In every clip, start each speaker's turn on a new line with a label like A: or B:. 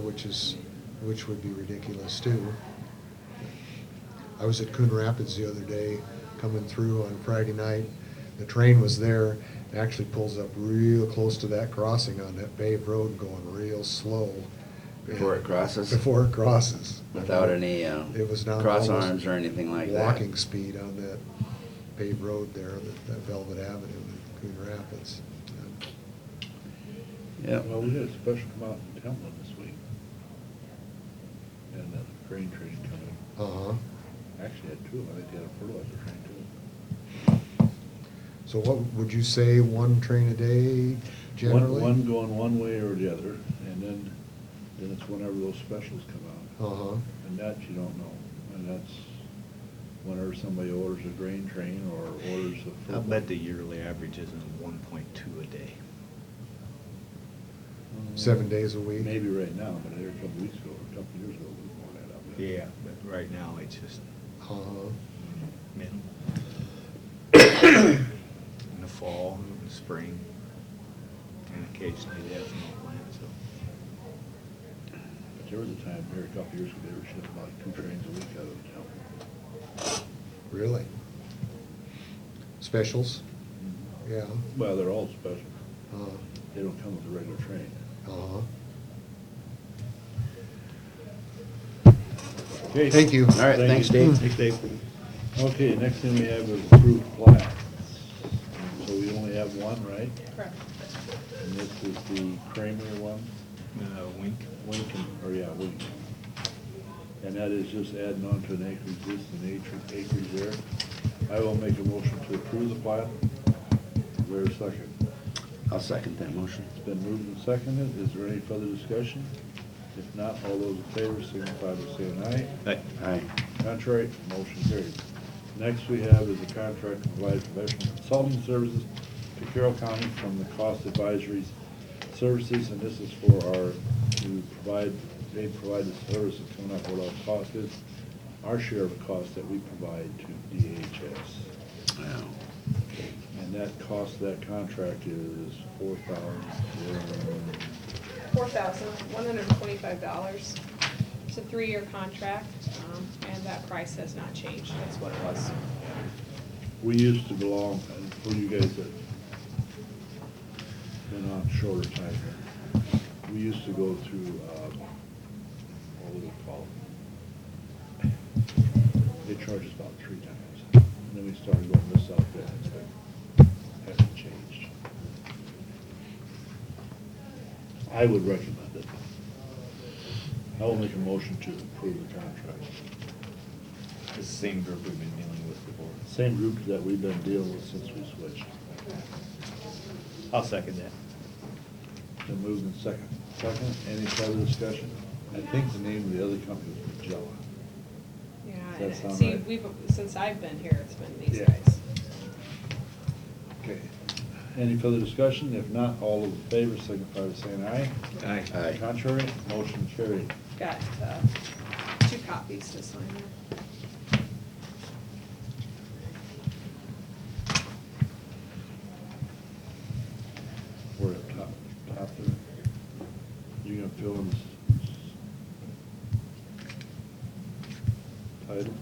A: which is, which would be ridiculous too. I was at Coon Rapids the other day, coming through on Friday night. The train was there, it actually pulls up real close to that crossing on that paved road, going real slow.
B: Before it crosses?
A: Before it crosses.
B: Without any uh,
A: It was not.
B: cross
A: almost
B: arms or anything like that.
A: Walking speed on that paved road there, that that Velvet Avenue in Coon Rapids.
B: Yep.
C: Well, we had a special come out in Templin this week. And then a grain train coming.
A: Uh-huh.
C: Actually had two, I think they had a fertilizer train too.
A: So what, would you say one train a day generally?
C: One, one going one way or the other, and then, then it's whenever those specials come out.
A: Uh-huh,
C: And that you don't know. And that's whenever somebody orders a grain train or orders a.
D: I
C: fertilizer.
D: bet the yearly average isn't one point two a day.
A: seven days a week?
C: Mm. Maybe right now, but there a couple weeks ago, or a couple years ago, we were that up.
D: Yeah, but right now it's just
A: Uh-huh,
D: minimal. In the fall, in the spring, and occasionally the ethanol plant, so.
C: But there was a time here a couple years ago, they were shipping about two trains a week out of Templin.
A: really? Specials? Yeah,
C: Well, they're all special.
A: uh,
C: They don't come with a regular train.
A: uh-huh.
C: Okay.
A: Thank you.
B: All right,
C: Thank
B: thanks,
C: you.
B: Dave.
D: Thanks, Dave.
C: Okay, next thing we have is approved plats. So we only have one, right?
E: Correct.
C: And this is the Kramer one,
D: Uh, wink.
C: Winkin, or yeah, Wink. And that is just adding on to an acre existing acre, acreage there. I will make a motion to approve the plat. Where a second?
B: I'll second that motion.
C: It's been moved and seconded. Is there any further discussion? If not, all those in favor signify by saying aye.
D: But
B: Aye.
C: Contrary, motion carried. Next we have is a contract to provide professional consulting services to Carroll County from the cost advisories services, and this is for our, to provide, they provide the service of coming up with our cost is, our share of the cost that we provide to DHS.
B: Wow.
C: And that cost, of that contract is four thousand,
E: Four thousand, one hundred and twenty-five dollars. It's a three-year contract, um, and that price has not changed, that's what it was.
C: We used to belong, and for you guys that been on shorter time here, we used to go through, um, what would it call? They charge us about three times, and then we started going this out there, it's been, hasn't changed. I would recommend it. I will make a motion to approve the contract.
D: it's the same group we've been dealing with before.
C: Same group that we've been dealing with since we switched.
D: I'll second that.
C: Been moved and second. Second, any further discussion? I think the name of the other company was Magella.
E: Yeah,
C: Does that
E: and
C: sound
E: see,
C: right?
E: we've, since I've been here, it's been these
C: Yeah.
E: guys.
C: Okay. Any further discussion? If not, all in favor, signify by saying aye.
D: Aye.
B: Aye.
C: Contrary, motion carried.
E: Got, uh, two copies to sign there.
C: We're at top, top there. You gonna fill in this? Title?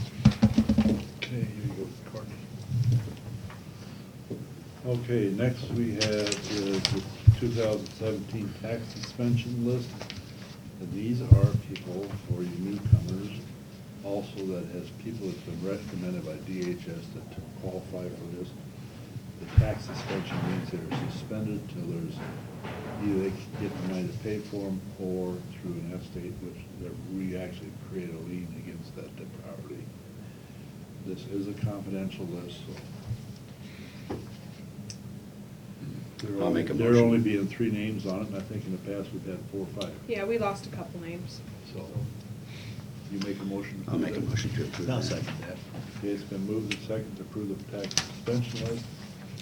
C: Okay, here you go, Courtney. Okay, next we have is the two thousand seventeen tax suspension list. And these are people for you newcomers, also that has people that's been recommended by DHS that to qualify for this. The tax suspension means they're suspended till there's, either they can get the money to pay for them or through an estate, which that we actually create a lien against that property. This is a confidential list, so. There
B: I'll make a
C: only- There
B: motion.
C: only being three names on it, and I think in the past we've had four or five.
E: Yeah, we lost a couple names.
C: So, you make a motion?
B: I'll make a motion to approve.
D: I'll
B: that.
D: second that.
C: Okay, it's been moved and seconded to approve the tax suspension list.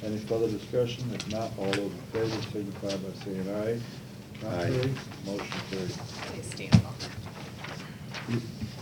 C: Any further discussion? If not, all those in favor signify by saying aye.
B: Aye.
C: Contrary, Motion carried.
E: They stand on that.